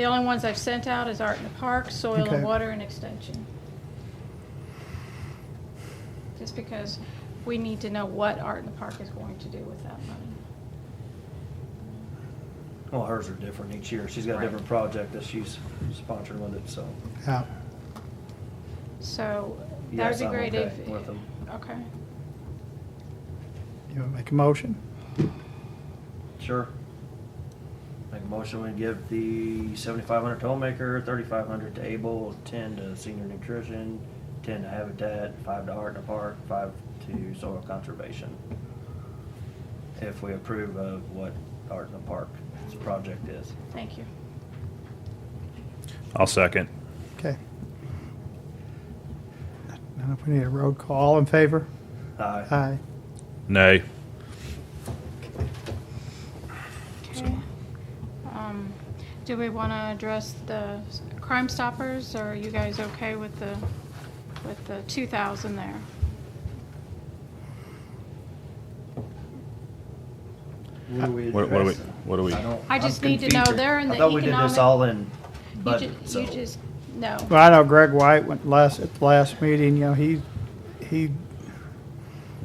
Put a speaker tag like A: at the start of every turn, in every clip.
A: The only ones I've sent out is Art in the Park, Soil
B: Okay.
A: and Water, and Extension. Just because we need to know what Art in the Park is going to do with that money.
C: Well, hers are different each year. She's got a
A: Right.
C: different project that she's sponsored with it, so.
B: Yeah.
A: So that would
C: Yes,
A: be
C: I'm
A: great
C: okay
A: if.
C: with 'em.
A: Okay.
B: You want to make a motion?
C: Sure. Make a motion, we give the seventy-five hundred to Homemaker, thirty-five hundred to Able, ten to Senior Nutrition, ten to Habitat, five to Art in the Park, five to Soil Conservation. If we approve of what Art in the Park's project is.
A: Thank you.
D: I'll second.
B: Okay. I don't know if we need a road call. All in favor?
D: Uh,
C: Aye.
B: Aye.
D: Nay.
A: Okay. Um, Do we want to address the Crime Stoppers, or are you guys okay with the, with the 2,000 there?
D: What, what do we? What do we?
C: I don't-
A: I
C: I'm
A: just need to know
C: confused.
A: they're in
C: I
A: the
C: thought we did this
A: economic-
C: all in
A: You
C: budget,
A: ju-
C: so.
A: You just, no.
B: Well, I know Greg White went last, at the last meeting, you know, he, he,
D: You're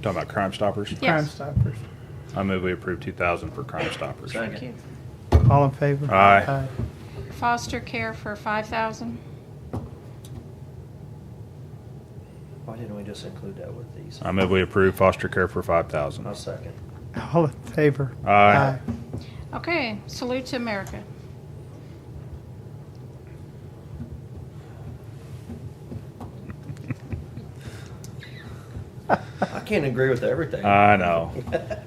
D: talking about Crime Stoppers.
A: Yeah.
B: Crime
A: Yes.
B: Stoppers.
D: I move we approve two thousand for Crime Stoppers.
C: Second.
A: Thank you.
B: All in favor?
D: Aye.
A: Foster care for 5,000?
C: Why didn't we just include that with these?
D: I move we approve foster care for five
C: I'll
D: thousand.
C: second.
B: Aye. All in favor?
D: Aye.
A: Okay, salute to America.
C: I can't agree with everything.
D: I know.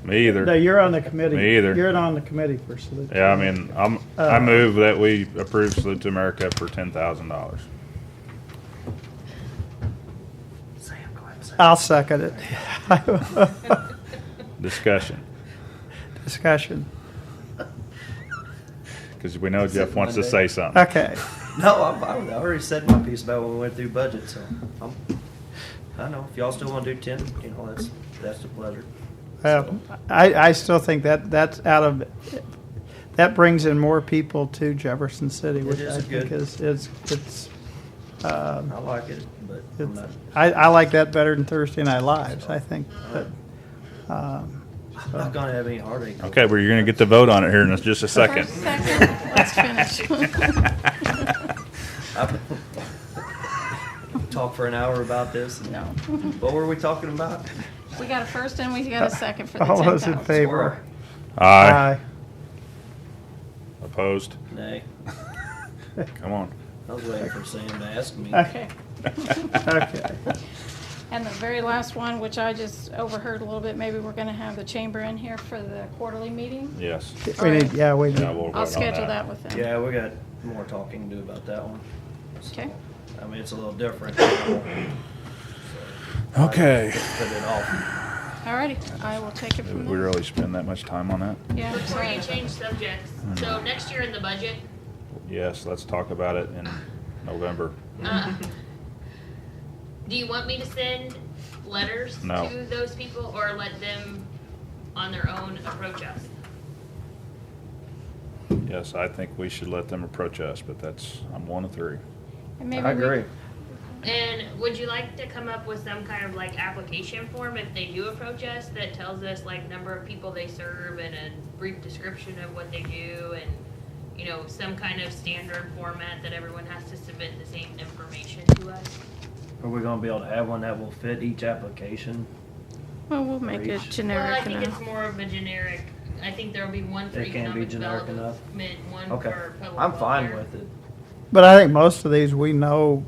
D: Me
B: No,
D: either.
B: you're on the committee.
D: Me either.
B: You're on the committee for salute.
D: Yeah, I mean, I'm,
B: Uh.
D: I move that we approve Salute to America for ten thousand dollars.
C: Sam, go ahead and say it.
B: I'll second it.
D: Discussion,
B: Discussion.
D: because we know
C: Is it
D: Jeff wants to
C: Monday?
D: say something.
B: Okay.
C: No, I'm, I'm- I already said my piece about when we went through budget, so I'm, I don't know, if y'all still wanna do ten, you know, that's, that's a pleasure.
B: Well, Uh, I, I still think that that's out of, that brings in more people to Jefferson City, which
C: is
B: I think
C: good.
B: is, it's, it's, uh,
C: I like it, but I'm
B: it's,
C: not,
B: I, I like that better than Thursday Night Lives, I think, but, um,
C: I'm not gonna have any heartache.
D: Okay, well, you're gonna get to vote on it here in just a second.
A: First, second, let's finish.
C: I- Talk for an hour about this. and-
A: No.
C: What were we talking about?
A: We got a first and we got a second for the
B: All those in
A: 10,000.
B: favor?
C: Squirrel.
D: Aye. Opposed?
C: Nay,
D: Come on.
C: I was waiting for Sam to ask me.
B: Okay,
A: Okay.
B: okay.
A: And the very last one, which I just overheard a little bit, maybe we're gonna have the chamber in here for the quarterly meeting.
D: Yes.
B: We need, yeah, we
D: Yeah,
B: need,
D: we'll vote
A: I'll
D: on
A: schedule that with them.
C: Yeah, we got more talking to do about that one. So,
A: Okay.
C: I mean, it's a little different. so I
D: Okay.
C: just Put it off.
A: Alrighty, I will take it from
D: Did we
A: there.
D: really spend that much time on that?
A: Yeah, I'm
E: Before
A: sorry.
E: you change subjects, so next year in the budget,
D: Yes, let's talk about it in November.
E: uh, do you want me to send letters
D: No.
E: to those people or let them on their own approach us?
D: Yes, I think we should let them approach us, but that's, I'm one of three.
A: And maybe
C: I
A: we-
C: agree.
E: And would you like to come up with some kind of like application form if they do approach us that tells us like number of people they serve and a brief description of what they do and, you know, some kind of standard format that everyone has to submit the same information to us?
C: Are we gonna be able to have one that will fit each application?
A: Well, we'll make it
C: Reach.
E: Well, I
A: generic
E: think it's
A: enough.
E: more of a generic, I think there'll be one for
C: It can be
E: economic
C: generic
E: development, one
C: Okay,
E: for public
C: I'm fine
E: welfare.
C: with it.
B: but I think most of these we know,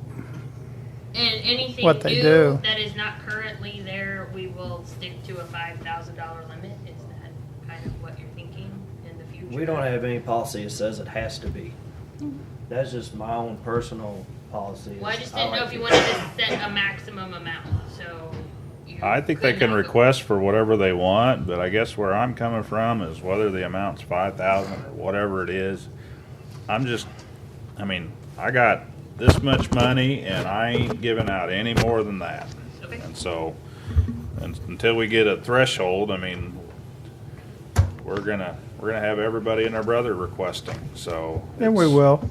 E: And anything
B: What they do.
E: new that is not currently there, we will stick to a five thousand dollar limit, is that kind of what you're thinking in the future?
C: We don't have any policy that says it has to be.
A: Mm-hmm.
C: That's just my own personal policy.
E: Well, I just
C: I
E: didn't know
C: like
E: if
C: it.
E: you wanted to set a maximum amount, so. you
D: I think they
E: could
D: can
E: have a-
D: request for whatever they want, but I guess where I'm coming from is whether the amount's five thousand or whatever it is. I'm just, I mean, I got this much money and I ain't giving out any more than that.
E: Okay.
D: And so, and until we get a threshold, I mean, we're gonna, we're gonna have everybody and their brother requesting, so.
B: and we
D: it's-
B: will.